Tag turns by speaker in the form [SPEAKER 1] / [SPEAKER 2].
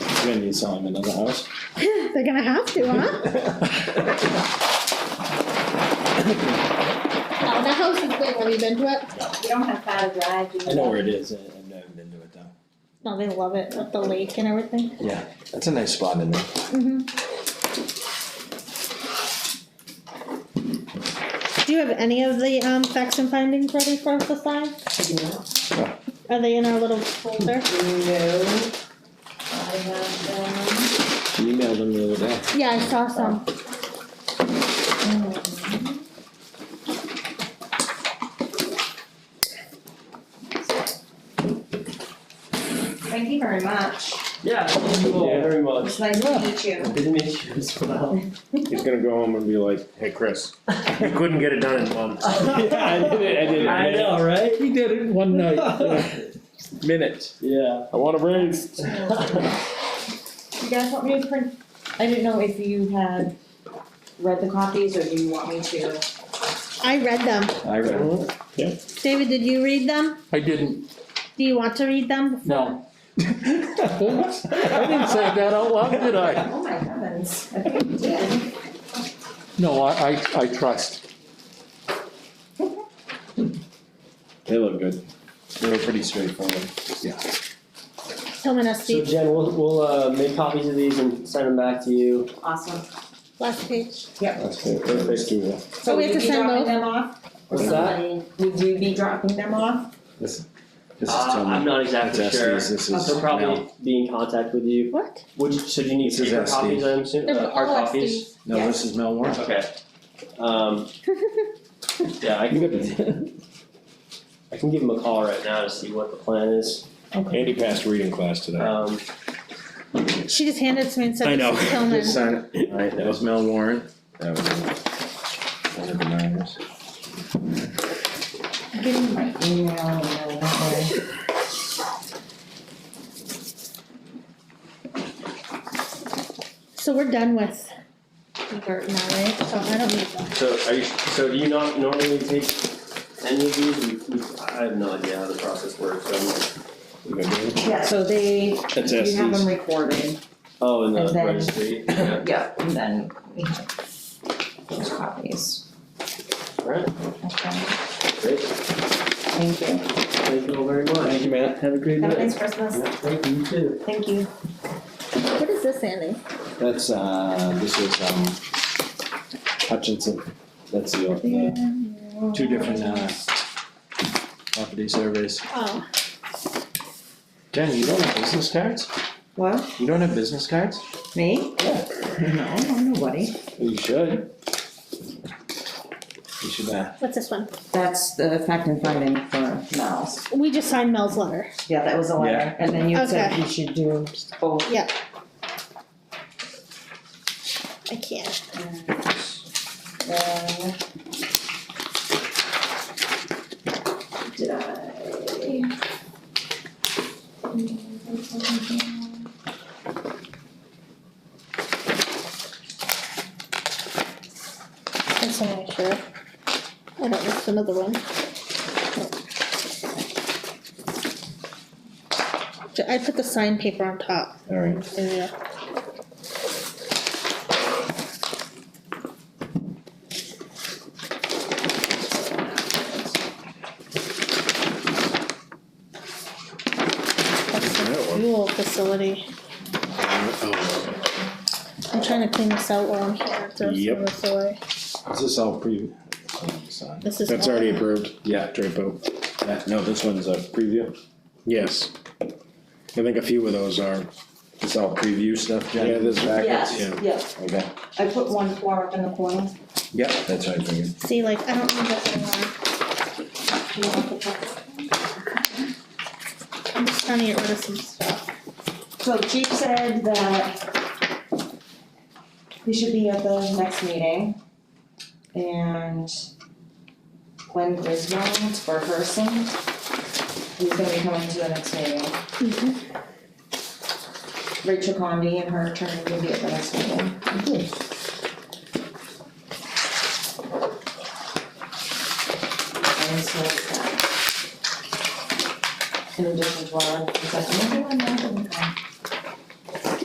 [SPEAKER 1] We're gonna need to sell him another house.
[SPEAKER 2] They're gonna have to, huh? No, the house is big, have you been to it?
[SPEAKER 3] You don't have five drive, you
[SPEAKER 1] I know where it is, I- I've never been to it though.
[SPEAKER 2] No, they love it, with the lake and everything.
[SPEAKER 1] Yeah, that's a nice spot in there.
[SPEAKER 2] Mhm. Do you have any of the, um, facts and findings ready for us to sign? Are they in our little folder?
[SPEAKER 3] No. I have,
[SPEAKER 1] She emailed him the other day.
[SPEAKER 2] Yeah, I saw some.
[SPEAKER 3] um. Thank you very much.
[SPEAKER 4] Yeah, thank you all
[SPEAKER 5] Yeah.
[SPEAKER 4] very much.
[SPEAKER 3] It's nice to meet you.
[SPEAKER 4] Good to meet you as well.
[SPEAKER 5] He's gonna go home and be like, hey, Chris, you couldn't get it done in months.
[SPEAKER 1] Yeah, I did it, I did it.
[SPEAKER 4] I know, right?
[SPEAKER 5] He did it in one night, yeah. minutes.
[SPEAKER 4] Yeah.
[SPEAKER 5] I want a raise.
[SPEAKER 3] You guys want me to print, I didn't know if you had read the copies or do you want me to?
[SPEAKER 2] I read them.
[SPEAKER 1] I read it.
[SPEAKER 2] David, did you read them?
[SPEAKER 6] I didn't,
[SPEAKER 2] Do you want to read them?
[SPEAKER 6] no. Oops, I didn't say that out loud, did I?
[SPEAKER 3] Oh my heavens, I think you did.
[SPEAKER 6] No, I, I, I trust.
[SPEAKER 1] They look good. They were pretty straightforward.
[SPEAKER 2] Tillman S.
[SPEAKER 4] So
[SPEAKER 2] Steve,
[SPEAKER 4] Jen, we'll, we'll, uh, make copies of these and send them back to you.
[SPEAKER 3] Awesome.
[SPEAKER 2] last page.
[SPEAKER 1] That's good. Let's do that.
[SPEAKER 3] So
[SPEAKER 2] we have
[SPEAKER 3] we
[SPEAKER 2] to
[SPEAKER 3] you be
[SPEAKER 2] send
[SPEAKER 3] dropping
[SPEAKER 2] both?
[SPEAKER 3] them off?
[SPEAKER 4] What's that?
[SPEAKER 3] Would you be dropping them off?
[SPEAKER 1] This is
[SPEAKER 4] Uh, I'm
[SPEAKER 1] Tillman.
[SPEAKER 4] not exactly
[SPEAKER 1] That's
[SPEAKER 4] sure.
[SPEAKER 1] Estes, this is
[SPEAKER 4] They'll probably
[SPEAKER 1] Mel.
[SPEAKER 4] be in contact with you.
[SPEAKER 2] What?
[SPEAKER 4] Would, you- so do you need
[SPEAKER 1] This is
[SPEAKER 4] paper
[SPEAKER 1] Estes.
[SPEAKER 4] copies, I'm assuming,
[SPEAKER 2] They're
[SPEAKER 4] uh, hard
[SPEAKER 3] Oh,
[SPEAKER 2] all at
[SPEAKER 4] copies?
[SPEAKER 2] Steve's.
[SPEAKER 1] No, this is Mel Warren.
[SPEAKER 4] Okay. Um, yeah, I can, I can give him a call right now to see what the plan is.
[SPEAKER 5] Andy passed reading class today.
[SPEAKER 4] Um,
[SPEAKER 2] She just handed it to me and said,
[SPEAKER 5] I know.
[SPEAKER 2] "This is Tillman."
[SPEAKER 5] Just sign it. Alright, that was Mel Warren.
[SPEAKER 1] That was one of the miners.
[SPEAKER 3] Give me my email and then that way.
[SPEAKER 2] So we're done with Bert now, right? So I don't need them.
[SPEAKER 4] so are you, so do you not normally take any of these? We- we- I have no idea how the process works, so I'm like,
[SPEAKER 3] Yeah, so they, you have
[SPEAKER 5] That's Estes.
[SPEAKER 3] them recorded,
[SPEAKER 4] oh, in
[SPEAKER 3] And
[SPEAKER 4] the
[SPEAKER 3] then-
[SPEAKER 4] registry, yeah,
[SPEAKER 3] yeah, and then we have those copies.
[SPEAKER 4] alright,
[SPEAKER 3] Okay,
[SPEAKER 4] great,
[SPEAKER 3] thank you. Have
[SPEAKER 4] thank you all very much. Thank you, Matt, have a
[SPEAKER 3] a
[SPEAKER 4] great
[SPEAKER 3] nice Christmas.
[SPEAKER 4] Thank you, you too.
[SPEAKER 3] Thank you.
[SPEAKER 2] What is this, Andy?
[SPEAKER 1] That's, uh, this is, um, Hutchinson. That's the, uh, two different, uh, property surveys.
[SPEAKER 2] Oh,
[SPEAKER 1] Jen, you don't have business cards?
[SPEAKER 3] What?
[SPEAKER 1] You don't have business cards?
[SPEAKER 3] Me?
[SPEAKER 1] Yeah.
[SPEAKER 3] No, no, nobody.
[SPEAKER 1] You should. You should, uh,
[SPEAKER 2] what's this one?
[SPEAKER 3] That's the fact and finding for Miles.
[SPEAKER 2] We just signed Mel's letter.
[SPEAKER 3] Yeah, that was a letter, and then you said
[SPEAKER 2] Okay.
[SPEAKER 3] you should do both.
[SPEAKER 2] I can't.
[SPEAKER 3] Uh, Did I?
[SPEAKER 2] That's an extra. I don't, it's another one. Ju- I put the sign paper on top.
[SPEAKER 1] alright.
[SPEAKER 2] Yeah. Fuel facility.
[SPEAKER 5] Oh.
[SPEAKER 2] I'm trying to clean this out while I'm here, throw some of
[SPEAKER 5] Yep.
[SPEAKER 2] this away.
[SPEAKER 1] Is this all pre? oh, it's on.
[SPEAKER 2] This is.
[SPEAKER 5] That's
[SPEAKER 2] all-
[SPEAKER 5] already approved,
[SPEAKER 1] Yeah,
[SPEAKER 5] Drapo.
[SPEAKER 1] yeah, no, this one's a preview.
[SPEAKER 5] Yes. I think a few of those are,
[SPEAKER 1] It's all preview stuff, Jen?
[SPEAKER 5] yeah, there's packets, yeah.
[SPEAKER 3] Yes, yeah,
[SPEAKER 1] Okay,
[SPEAKER 3] I put one flower up in the corner.
[SPEAKER 1] yep, that's what I figured.
[SPEAKER 2] See, like, I don't need this anymore.
[SPEAKER 3] You want to put-
[SPEAKER 2] I'm just trying to get rid of some stuff.
[SPEAKER 3] So Chief said that we should be at the next meeting. And Gwen Griswold for Hersing, who's gonna be coming to the next meeting.
[SPEAKER 5] Mm-hmm.
[SPEAKER 3] Rachel Condi and her attorney will be at the next meeting. And so it's that. In addition to our, it's like, "Maybe I'm not gonna come."